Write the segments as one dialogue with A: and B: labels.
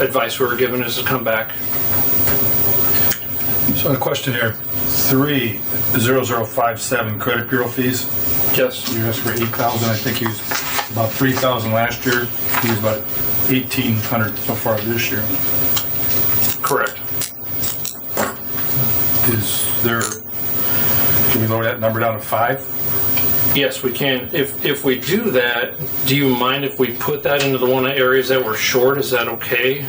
A: advice we were given is to come back.
B: So on questionnaire three, 0057 credit bureau fees,
A: Yes.
B: you asked for 8,000, I think you used about 3,000 last year, you used about 1,800 so far this year.
A: Correct.
B: Is there, can we lower that number down to five?
A: Yes, we can. If if we do that, do you mind if we put that into the one of areas that we're short? Is that okay?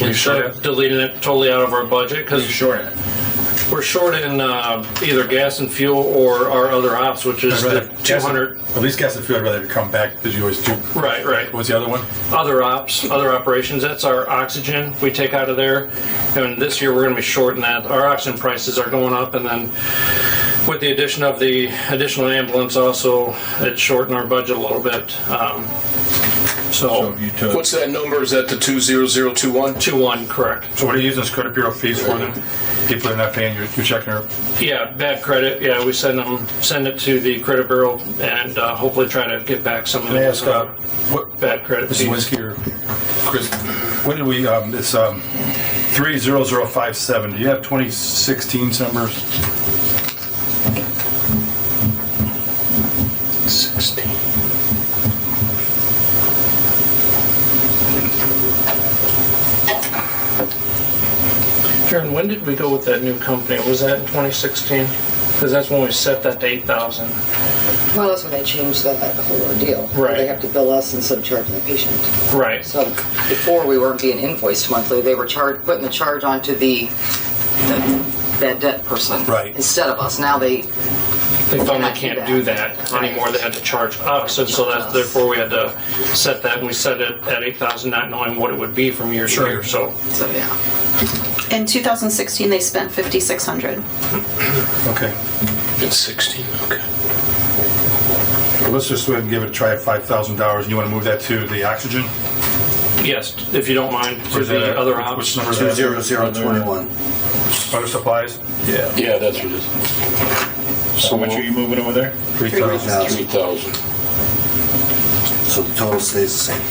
A: Instead of deleting it totally out of our budget because
B: Sure. I'd
A: we're short in uh, either gas and fuel or our other ops, which is
B: rather-
A: the 200.
B: At least guess if you'd rather come back, because you always do.
A: Right, right.
B: What's the other one?
A: other ops, other operations, that's our oxygen we take out of there. And this year, we're gonna be short in that. Our oxygen prices are going up and then with the addition of the additional ambulance also, it shortened our budget a little bit. Um, So,
B: So Oh, you took,
C: What's that number? Is that the 20021?
A: two one, correct.
B: so what are you using this credit bureau fees for then? People are not paying, you're you're checking their
A: Yeah, bad credit, yeah, we send them, send it to the credit bureau and uh, hopefully try to get back some of
B: Can I ask, uh,
A: the
B: what,
A: bad credit.
B: Mrs.
A: fees.
B: Winsky or Chris, when did we, um, it's, um, three zero zero five seven, do you have twenty sixteen numbers?
C: 16.
A: Karen, when did we go with that new company? Was that in 2016? Because that's when we set that to 8,000.
D: Well, that's when they changed that whole ordeal.
A: Right.
D: They have to bill us instead of charging the patient.
A: Right.
D: So before we weren't being invoiced monthly, they were charged, putting the charge onto the, the that debt person.
B: Right.
D: Instead of us. Now they,
A: They found they can't do that anymore. They had to charge us, and so that, therefore, we had to set that, and we set it at eight thousand, not knowing what it would be from year to year, so.
D: so yeah.
E: In 2016, they spent 5,600.
B: Okay,
C: It's 16, okay.
B: well, let's just go ahead and give it a try at five thousand dollars, and you wanna move that to the oxygen?
A: Yes, if you don't mind, to the other ops.
B: Which number is
F: Two
B: that?
F: zero zero twenty-one.
B: Butter supplies,
F: Yeah.
C: Yeah, that's what it is.
G: So much are you moving over there?
B: three thousand.
C: 3,000.
F: So the total stays the same.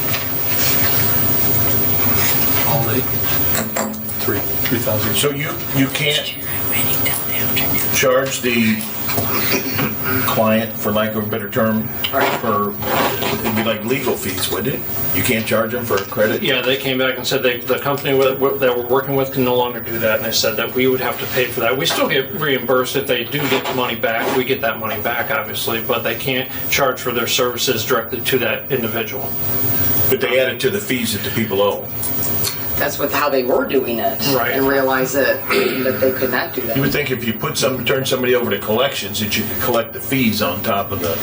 B: Three, three thousand.
G: So you, you can't charge the client, for lack of a better term, for, it'd be like legal fees, wouldn't it? You can't charge them for a credit?
A: Yeah, they came back and said they, the company with- that we're working with can no longer do that, and they said that we would have to pay for that. We still get reimbursed if they do get the money back. We get that money back, obviously, but they can't charge for their services directly to that individual.
G: But they add it to the fees that the people owe.
D: That's what, how they were doing it.
A: Right.
D: And realized that, that they could not do
G: You would
D: that.
G: think if you put some, turn somebody over to collections, that you could collect the fees on top of the,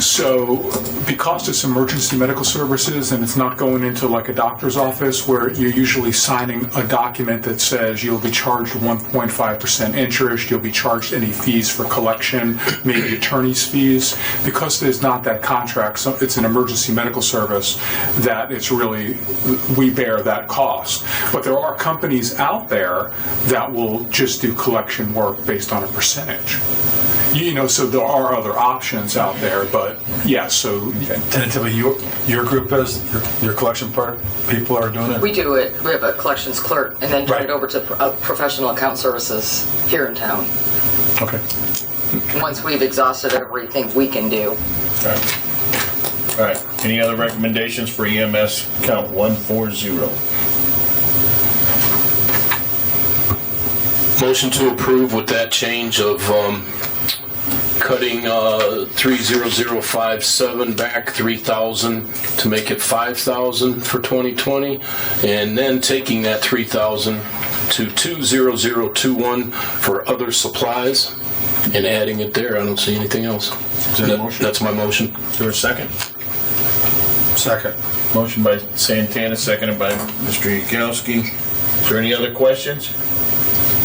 H: So because it's emergency medical services and it's not going into like a doctor's office where you're usually signing a document that says you'll be charged 1.5% interest, you'll be charged any fees for collection, maybe attorney's fees, because there's not that contract, so it's an emergency medical service that it's really, we bear that cost. But there are companies out there that will just do collection work based on a percentage. You know, so there are other options out there, but yeah, so
B: Tentatively, your, your group is, your, your collection part, people are doing it?
D: We do it, we have a collections clerk and then turn
B: Right.
D: it over to pro- uh, professional account services here in town.
B: Okay.
D: Once we've exhausted everything we can do.
G: all right. Any other recommendations for EMS count 140?
C: Motion to approve with that change of um, cutting uh, 30057 back 3,000 to make it 5,000 for 2020, and then taking that 3,000 to 20021 for other supplies and adding it there. I don't see anything else.
G: that a
C: That-
G: motion?
C: That's my motion.
G: Is there a second?
B: Second.
G: Motion by Santana, seconded by Mr. Yagowski. Is there any other questions?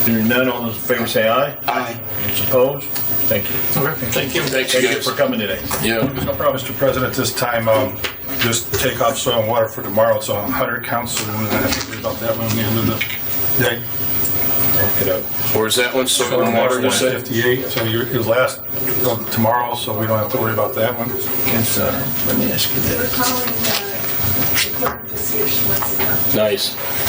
G: Hearing none, all those in favor say aye.
C: Aye.
G: Those opposed? Thank you.
C: Thank you. Thanks,
G: Thank you
C: guys.
G: for coming today.
C: Yeah.
B: No problem, Mr. President, this time, um, just take off soil and water for tomorrow, so I'm 100 counts, so I have to worry about that when we end the day.
G: Look it up.
C: Or is that one soil and water, you said?
B: 58, so your, your last, uh, tomorrow, so we don't have to worry about that one.
G: It's, uh, let me ask you this.
I: We're calling the
H: Nice.